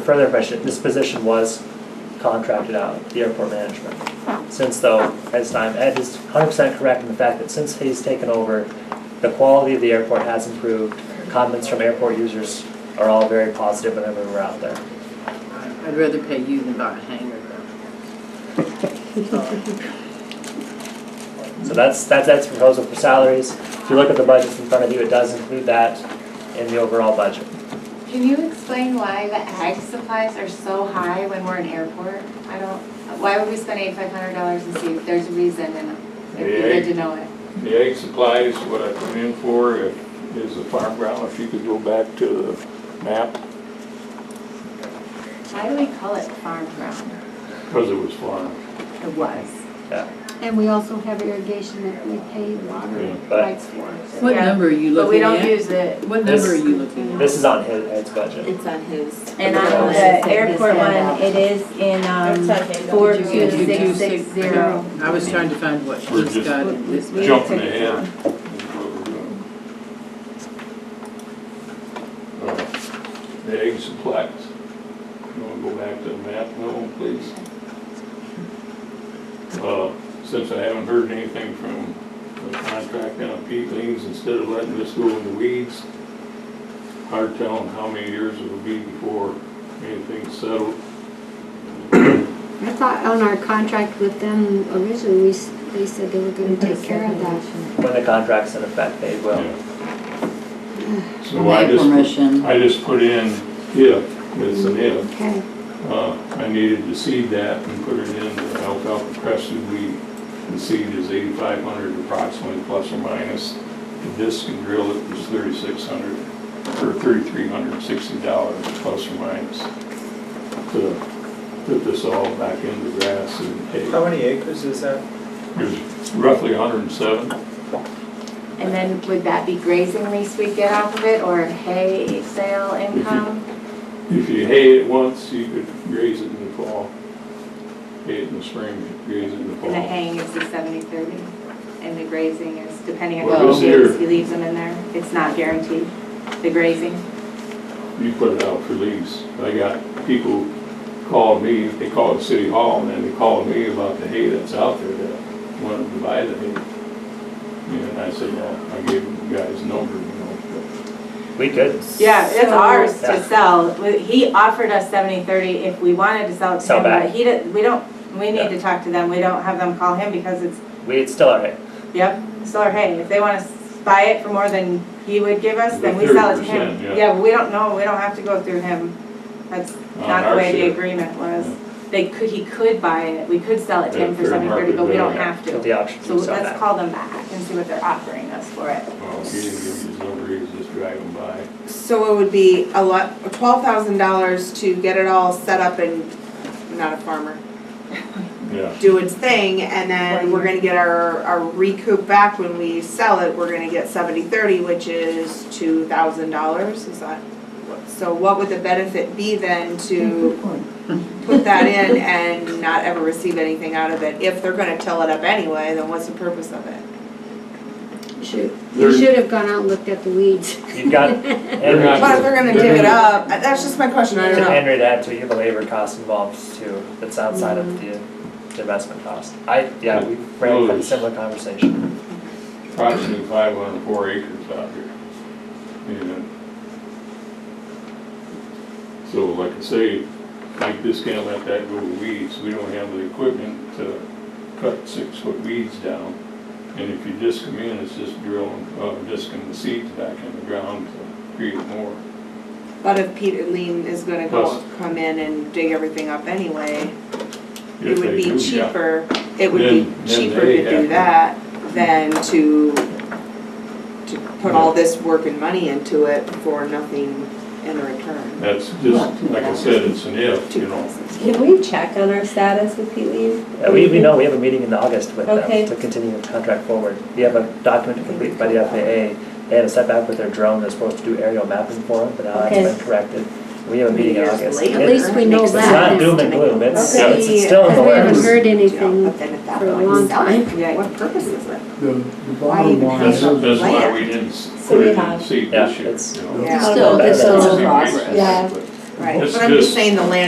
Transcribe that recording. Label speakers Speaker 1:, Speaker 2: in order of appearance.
Speaker 1: further question, this position was contracted out, the airport management. Since though, as time, Ed is hundred percent correct in the fact that since he's taken over, the quality of the airport has improved. Comments from airport users are all very positive whenever we're out there.
Speaker 2: I'd rather pay you than buy a hanger though.
Speaker 1: So that's, that's Ed's proposal for salaries. If you look at the budgets in front of you, it does include that in the overall budget.
Speaker 3: Can you explain why the ag supplies are so high when we're in airport? I don't, why would we spend eighty-five hundred dollars in seats? There's a reason and it'd be good to know it.
Speaker 4: The egg supplies, what I come in for if- is the farm ground, if you could go back to the map,
Speaker 3: Why do we call it farm ground?
Speaker 4: because it was farm.
Speaker 3: It was.
Speaker 1: Yeah.
Speaker 5: And we also have irrigation that we pay water
Speaker 1: But-
Speaker 5: rights for. so-
Speaker 2: What
Speaker 3: Yeah,
Speaker 2: number are you
Speaker 3: But we
Speaker 2: looking
Speaker 3: don't
Speaker 2: at?
Speaker 3: use it.
Speaker 2: What
Speaker 1: This-
Speaker 2: number are you looking at?
Speaker 1: This is on his, Ed's budget.
Speaker 6: It's on his.
Speaker 3: And
Speaker 1: on
Speaker 3: the
Speaker 5: airport one,
Speaker 6: it is in, um,
Speaker 3: four
Speaker 2: Did you do two six
Speaker 6: zero.
Speaker 2: I was trying to find what
Speaker 4: We're
Speaker 2: she's
Speaker 4: just-
Speaker 2: got in this.
Speaker 6: We-
Speaker 4: Jumping
Speaker 6: took it
Speaker 4: ahead.
Speaker 6: on.
Speaker 4: is what we're doing. Uh, The egg supplies. You want to go back to the map, no, please? Uh, Since I haven't heard anything from the contract on peatings, instead of letting this go in the weeds, hard telling how many years it'll be before anything's settled.
Speaker 5: I thought on our contract with them originally, we, s- they said they were gonna take care of that.
Speaker 1: When the contract's in effect, they will.
Speaker 4: So I just,
Speaker 2: permission.
Speaker 4: I just put in if, it's an if.
Speaker 5: Okay,
Speaker 4: Uh, I needed to seed that and put it in the alfalfa crested wheat. The seed is eighty-five hundred approximately, plus or minus. The disc and drill it was thirty-six hundred, or thirty-three hundred sixty dollars, plus or minus. To put this all back in the grass and hay.
Speaker 7: How many acres is that?
Speaker 4: There's roughly hundred and seven.
Speaker 3: And then would that be grazing lease we get off of it or hay sale income?
Speaker 4: If you hay it once, you could graze it in the fall. Hay it in the spring, graze it in the fall.
Speaker 3: And the haying is the seventy-thirty and the grazing is depending on
Speaker 4: Well,
Speaker 3: what
Speaker 4: this
Speaker 3: he leaves,
Speaker 4: here-
Speaker 3: he leaves them in there. It's not guaranteed, the grazing.
Speaker 4: you put it out for lease. I got people called me, they called City Hall, and then they called me about the hay that's out there that wanted to buy the hay. You know, And I said, well, I gave the guy his number, you know.
Speaker 1: We could.
Speaker 3: Yeah, it's
Speaker 6: So-
Speaker 3: ours to
Speaker 1: Yeah.
Speaker 3: sell. We- He offered us seventy, thirty if we wanted to sell it to
Speaker 1: Sell
Speaker 3: him, but
Speaker 1: back.
Speaker 3: he didn't, we don't, we
Speaker 1: Yeah.
Speaker 3: need to talk to them. We don't have them call him because it's,
Speaker 1: We, it's still all right.
Speaker 3: yep, solar hay. If they want to buy it for more than he would give us, then we
Speaker 4: The
Speaker 3: sell it to
Speaker 4: 30%,
Speaker 3: him.
Speaker 4: yeah.
Speaker 3: Yeah, but we don't know, we don't have to go through him. That's
Speaker 4: On
Speaker 3: not
Speaker 4: our
Speaker 3: the way the
Speaker 4: share.
Speaker 3: agreement was. They could, he could buy it, we could sell it to him
Speaker 4: At
Speaker 3: for
Speaker 4: fair
Speaker 3: seventy, thirty,
Speaker 4: market
Speaker 3: but we don't
Speaker 4: value.
Speaker 3: have
Speaker 1: With
Speaker 3: to.
Speaker 1: the option
Speaker 3: So
Speaker 1: to sell
Speaker 3: let's
Speaker 1: back.
Speaker 3: call them back and see what they're offering us for it.
Speaker 4: Well, he didn't give me his number, he was just driving by.
Speaker 8: So it would be a lot, twelve thousand dollars to get it all set up and, I'm not a farmer,
Speaker 4: Yeah.
Speaker 8: do its thing, and then we're gonna get our, our recoup back when we sell it, we're gonna get seventy thirty, which is two thousand dollars, is that? what- So what would the benefit be then to put that in and not ever receive anything out of it? If they're gonna till it up anyway, then what's the purpose of it?
Speaker 5: should,
Speaker 4: There-
Speaker 5: you should have gone out and looked at the weeds.
Speaker 1: You've got Henry,
Speaker 4: not-
Speaker 8: But if they're gonna dig it up, that's just my question, I
Speaker 1: to
Speaker 8: don't know.
Speaker 1: Henry to add to it, you have a labor cost involved too, that's outside of the the investment cost. I, yeah, we ran a
Speaker 4: Those.
Speaker 1: similar conversation.
Speaker 4: Approximately five hundred four acres out here. And So like I say, like this can't let that go to weeds, we don't have the equipment to cut six foot weeds down. And if you disc them in, it's just drilling, uh, discing the seeds back in the ground to create more.
Speaker 8: But if Peter Lean is gonna go,
Speaker 4: Plus-
Speaker 8: come in and dig everything up anyway, it
Speaker 4: If
Speaker 8: would
Speaker 4: they
Speaker 8: be
Speaker 4: do, yeah.
Speaker 8: cheaper, it would be
Speaker 4: Then- then
Speaker 8: cheaper
Speaker 4: they
Speaker 8: to
Speaker 4: have
Speaker 8: do
Speaker 4: to-
Speaker 8: that than to, to put all this work and money into it for nothing in return.
Speaker 4: That's just, like I said, it's an if, you know.
Speaker 6: Can we check on our status with Pete Lee?
Speaker 1: Uh, We, we know, we have a meeting in August with
Speaker 6: Okay.
Speaker 1: them to continue the contract forward. We have a document to complete by the FAA. They had a setback with their drone, they're supposed to do aerial mapping for them, but now that's
Speaker 6: Okay.
Speaker 1: been corrected. We have a meeting in August.
Speaker 5: At least we know
Speaker 1: It's not
Speaker 5: that.
Speaker 1: doom and gloom, it's,
Speaker 4: Okay.
Speaker 1: it's it's still in the
Speaker 5: Because we haven't
Speaker 1: works.
Speaker 5: heard
Speaker 8: But
Speaker 5: anything
Speaker 8: then at that
Speaker 5: for a
Speaker 8: point,
Speaker 5: long
Speaker 8: sell it.
Speaker 5: time.
Speaker 3: Yeah.
Speaker 8: What purpose is it?
Speaker 9: The, the
Speaker 8: Why
Speaker 9: bottom
Speaker 8: even
Speaker 9: line
Speaker 8: pay
Speaker 4: That's,
Speaker 9: is,
Speaker 8: for
Speaker 4: that's why
Speaker 8: land?
Speaker 4: we didn't
Speaker 6: So
Speaker 4: put
Speaker 6: we
Speaker 4: it in
Speaker 6: have-
Speaker 4: seed
Speaker 1: Yeah,
Speaker 4: this year,
Speaker 1: it's-
Speaker 4: you know.
Speaker 8: Yeah.
Speaker 1: Still,
Speaker 4: That's
Speaker 1: this
Speaker 4: the
Speaker 1: is
Speaker 4: same
Speaker 2: progress.
Speaker 4: reason,
Speaker 6: Yeah.
Speaker 4: but-
Speaker 3: right?
Speaker 10: This-
Speaker 3: But I'm just
Speaker 10: this-
Speaker 3: saying the land